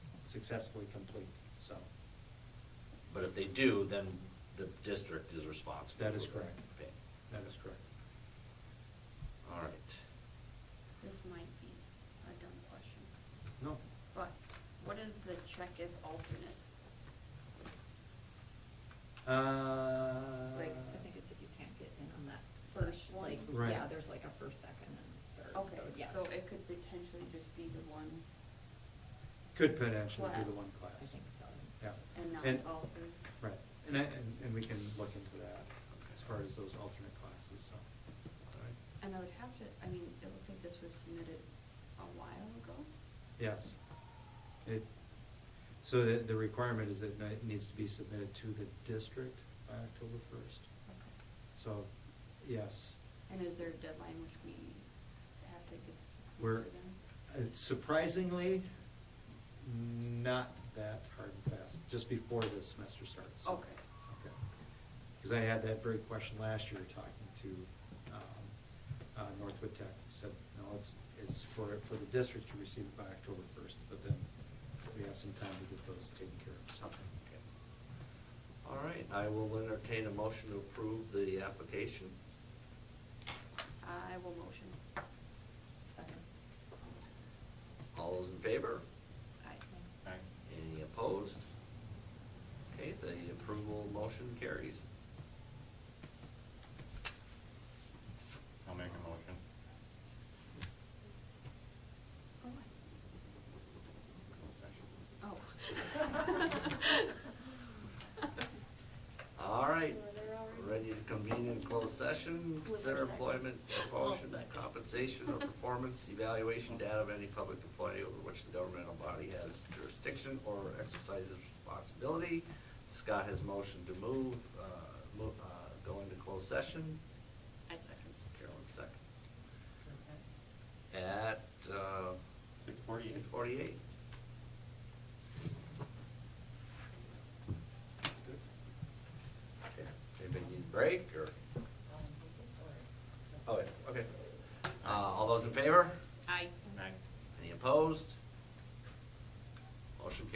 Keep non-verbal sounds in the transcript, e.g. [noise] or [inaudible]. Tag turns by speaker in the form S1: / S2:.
S1: successfully complete, so
S2: But if they do, then the district is responsible.
S1: That is
S2: for
S1: correct.
S2: Okay,
S1: that is correct.
S2: all right.
S3: This might be a dumb question,
S1: No,
S3: but what is the check if alternate?
S1: uh.
S4: Like, I think it's if you can't get in on that
S3: First
S4: first, like,
S1: one.
S4: yeah,
S1: Right.
S4: there's like a first, second, and third,
S3: Okay,
S4: so, yeah.
S3: so it could potentially just be the one
S1: Could potentially be the
S3: Class.
S1: one
S4: I
S1: class.
S4: think so.
S1: Yeah.
S3: and not
S1: And-
S3: all three?
S1: Right, and I, and, and we can look into that as far as those alternate classes, so. all right.
S3: And I would have to, I mean, it looks like this was submitted a while ago.
S1: Yes. It, so the, the requirement is that it needs to be submitted to the district by October first. So, yes,
S3: And is there a deadline which we have to get this? approved
S1: we're,
S3: by then?
S1: it's surprisingly, not that hard and fast, just before the semester starts. so-
S3: Okay.
S1: Okay. Because I had that very question last year talking to um, uh, Northwood Tech. Said, no, it's, it's for, for the district to receive it by October first, but then we have some time to get those taken care of. so.
S2: Okay. All right, I will entertain a motion to approve the application.
S3: I will motion.
S4: Second.
S2: All those in favor?
S3: Aye.
S2: Any opposed? Okay, the approval motion carries.
S5: I'll make a motion.
S3: Oh, I- Oh. [laughs]
S4: [laughs]
S2: All right,
S3: Were there already?
S2: ready to convene in closed session,
S3: Was
S2: consider
S3: there a second?
S2: employment, promotion,
S3: I'll second.
S2: compensation, or performance evaluation data of any public employee over which the governmental body has jurisdiction or exercises responsibility. Scott has motioned to move, uh, mo- uh, go into closed session.
S3: I second.
S2: Carolyn second. At, uh,
S5: Six forty-eight.
S2: eight forty-eight. Anybody need a break, or? Oh, yeah, okay. Uh, all those in favor?
S3: [laughs] Aye.
S5: Aye.
S2: Any opposed?